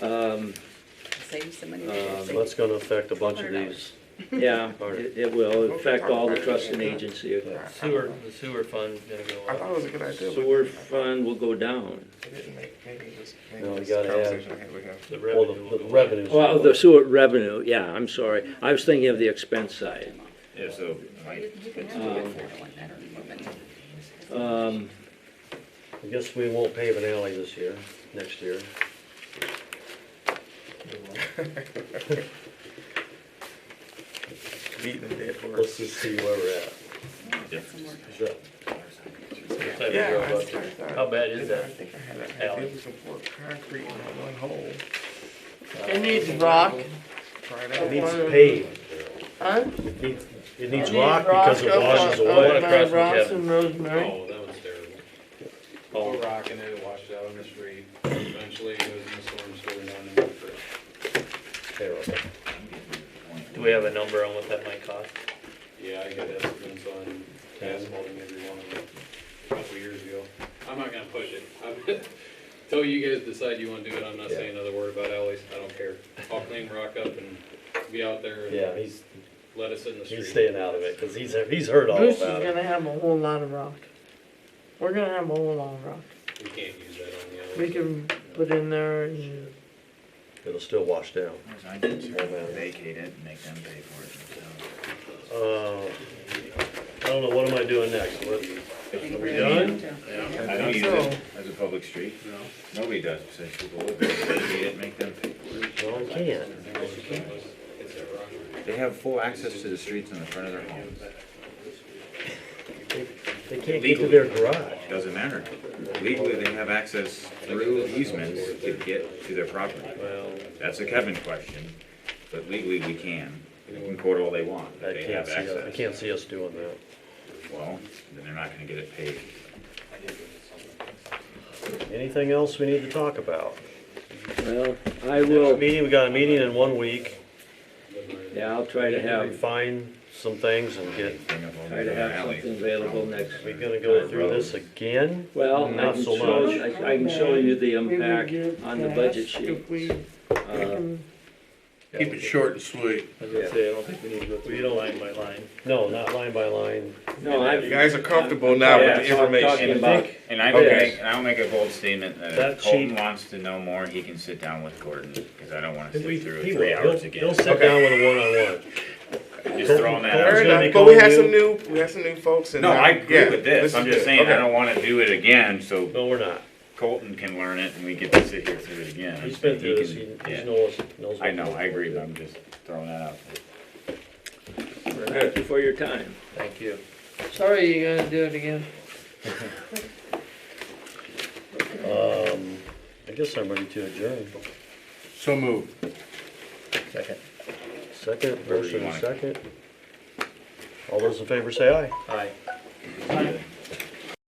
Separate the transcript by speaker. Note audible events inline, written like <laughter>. Speaker 1: Um,
Speaker 2: Save you some money.
Speaker 1: Um,
Speaker 2: Save-
Speaker 3: That's gonna affect a bunch of these.
Speaker 1: yeah,
Speaker 3: All right.
Speaker 1: it it will affect all the trusts and agency.
Speaker 4: Sewer, the sewer fund's gonna go
Speaker 5: I
Speaker 4: up.
Speaker 5: thought it was a good idea. but
Speaker 1: Sewer fund will go down.
Speaker 5: I didn't make- Maybe it was, maybe
Speaker 3: No,
Speaker 5: it
Speaker 3: you
Speaker 5: was a
Speaker 3: gotta add-
Speaker 5: conversation I had with him.
Speaker 4: The
Speaker 3: Well,
Speaker 4: revenue
Speaker 3: the,
Speaker 4: will
Speaker 3: the
Speaker 4: go up.
Speaker 3: revenues.
Speaker 1: Well, the sewer revenue, yeah, I'm sorry. I was thinking of the expense side.
Speaker 6: Yeah, so, like,
Speaker 2: You can have
Speaker 3: uh,
Speaker 2: it if you want that or you want
Speaker 1: Um,
Speaker 3: I guess we won't pave an alley this year, next year.
Speaker 5: Beating the dead
Speaker 3: Let's
Speaker 5: horse.
Speaker 3: just see where we're at.
Speaker 2: it. Some more.
Speaker 3: Is that-
Speaker 4: Type of
Speaker 5: Yeah,
Speaker 4: growth.
Speaker 5: I was like that.
Speaker 4: How bad is
Speaker 5: Didn't I
Speaker 4: that?
Speaker 5: think I had that.
Speaker 4: Alley?
Speaker 5: It was before concrete in that one hole.
Speaker 7: It needs rock.
Speaker 5: Right
Speaker 3: It
Speaker 5: out.
Speaker 3: needs paved.
Speaker 7: Huh?
Speaker 3: It needs, it needs rock
Speaker 7: It needs rock
Speaker 3: because it
Speaker 7: up
Speaker 3: washes
Speaker 7: on-
Speaker 3: away.
Speaker 7: up on
Speaker 4: Across from
Speaker 7: Ross
Speaker 4: Kevin.
Speaker 7: and Rosemary.
Speaker 8: Oh, that was terrible. All rock and then it washed out on the street. Eventually it was in the storm sewer down in Woodford.
Speaker 3: Terrible.
Speaker 4: Do we have a number on what that might cost?
Speaker 8: Yeah, I got estimates on asphalting every one of them a couple years ago. I'm not gonna push it. I'm- <laughs> Till you guys decide you wanna do it, I'm not saying another word about alleys. I don't care. I'll clean rock up and be out there
Speaker 3: Yeah,
Speaker 8: and
Speaker 3: he's,
Speaker 8: let us in the street.
Speaker 3: he's staying out of it because he's, he's heard all
Speaker 7: Bruce is
Speaker 3: about it.
Speaker 7: gonna have a whole lot of rock. We're gonna have a whole lot of rock.
Speaker 8: We can't use that on the alleys.
Speaker 7: We can put in there and
Speaker 3: It'll still wash down.
Speaker 6: I did too, vacate it and make them pay for it themselves.
Speaker 3: Uh, I don't know, what am I doing next? What, are we done?
Speaker 6: I don't use it as a public street. No. Nobody does, so people would vacate it, make them pay for it.
Speaker 3: No, I can't.
Speaker 8: It's a rock.
Speaker 6: They have full access to the streets in the front of their homes.
Speaker 3: They can't get to their garage.
Speaker 6: Doesn't matter. Legally, they have access through easements to get to their property. That's a Kevin question, but legally, we can. They can quote all they want, but
Speaker 3: I
Speaker 6: they
Speaker 3: can't
Speaker 6: have
Speaker 3: see, us- I
Speaker 6: access.
Speaker 3: can't see us doing that.
Speaker 6: Well, then they're not gonna get it paid.
Speaker 3: Anything else we need to talk about?
Speaker 1: well, I
Speaker 3: Well,
Speaker 1: will,
Speaker 3: meeting, we got a meeting in one week.
Speaker 1: yeah, I'll try to have,
Speaker 3: Refine some things and get,
Speaker 6: Bring up all
Speaker 1: try to
Speaker 6: the
Speaker 1: have
Speaker 6: alley.
Speaker 1: something available next.
Speaker 3: we gonna go through this again?
Speaker 1: Well, I
Speaker 3: Not
Speaker 1: can
Speaker 3: so
Speaker 1: show,
Speaker 3: much.
Speaker 1: I I can show you the
Speaker 7: we would
Speaker 1: impact
Speaker 7: get
Speaker 1: on the budget
Speaker 7: passed if
Speaker 1: sheet.
Speaker 7: we
Speaker 1: Uh,
Speaker 7: can-
Speaker 5: Keep it short and sweet.
Speaker 4: I was gonna say, I don't think we need to go through line by line.
Speaker 3: No, not line by line.
Speaker 1: No,
Speaker 5: You
Speaker 1: I,
Speaker 5: guys are comfortable now with the
Speaker 1: Yeah, so I'm
Speaker 5: information.
Speaker 1: talking
Speaker 3: I
Speaker 1: about-
Speaker 3: think,
Speaker 6: And I will
Speaker 3: Okay.
Speaker 6: make, and I'll make a bold statement that
Speaker 3: That
Speaker 6: if Colton
Speaker 3: cheap-
Speaker 6: wants to know more, he can sit down with Gordon, because I don't wanna sit
Speaker 3: we,
Speaker 6: through
Speaker 3: he
Speaker 6: three
Speaker 3: will,
Speaker 6: hours
Speaker 3: he'll,
Speaker 6: again.
Speaker 3: he'll sit down with a one-on-one.
Speaker 6: Just throwing
Speaker 3: Colton's
Speaker 5: Fair
Speaker 6: that out.
Speaker 3: gonna be
Speaker 5: enough, but we
Speaker 3: calling
Speaker 5: had
Speaker 3: you.
Speaker 5: some new, we had some new folks in.
Speaker 6: No,
Speaker 5: there.
Speaker 6: I agree
Speaker 5: Yeah,
Speaker 6: with this,
Speaker 5: listen
Speaker 6: I'm
Speaker 5: to
Speaker 6: just
Speaker 5: it.
Speaker 6: saying, I
Speaker 5: Okay.
Speaker 6: don't wanna do it again, so
Speaker 3: No, we're not.
Speaker 6: Colton can learn it and we get to sit here through it again.
Speaker 3: He's been
Speaker 6: He
Speaker 3: through this,
Speaker 6: can-
Speaker 3: he,
Speaker 6: yeah.
Speaker 3: he knows, knows.
Speaker 6: I know, I agree, but I'm just throwing that out. there.
Speaker 1: thank you for your time.
Speaker 4: Thank you.
Speaker 7: Sorry, you're gonna do it again.
Speaker 3: Um, I guess I'm ready to adjourn.
Speaker 5: So moved.
Speaker 3: Second,
Speaker 6: Wherever you
Speaker 3: motion
Speaker 6: want.
Speaker 3: second. All those in favor say aye.
Speaker 4: Aye.
Speaker 6: Good.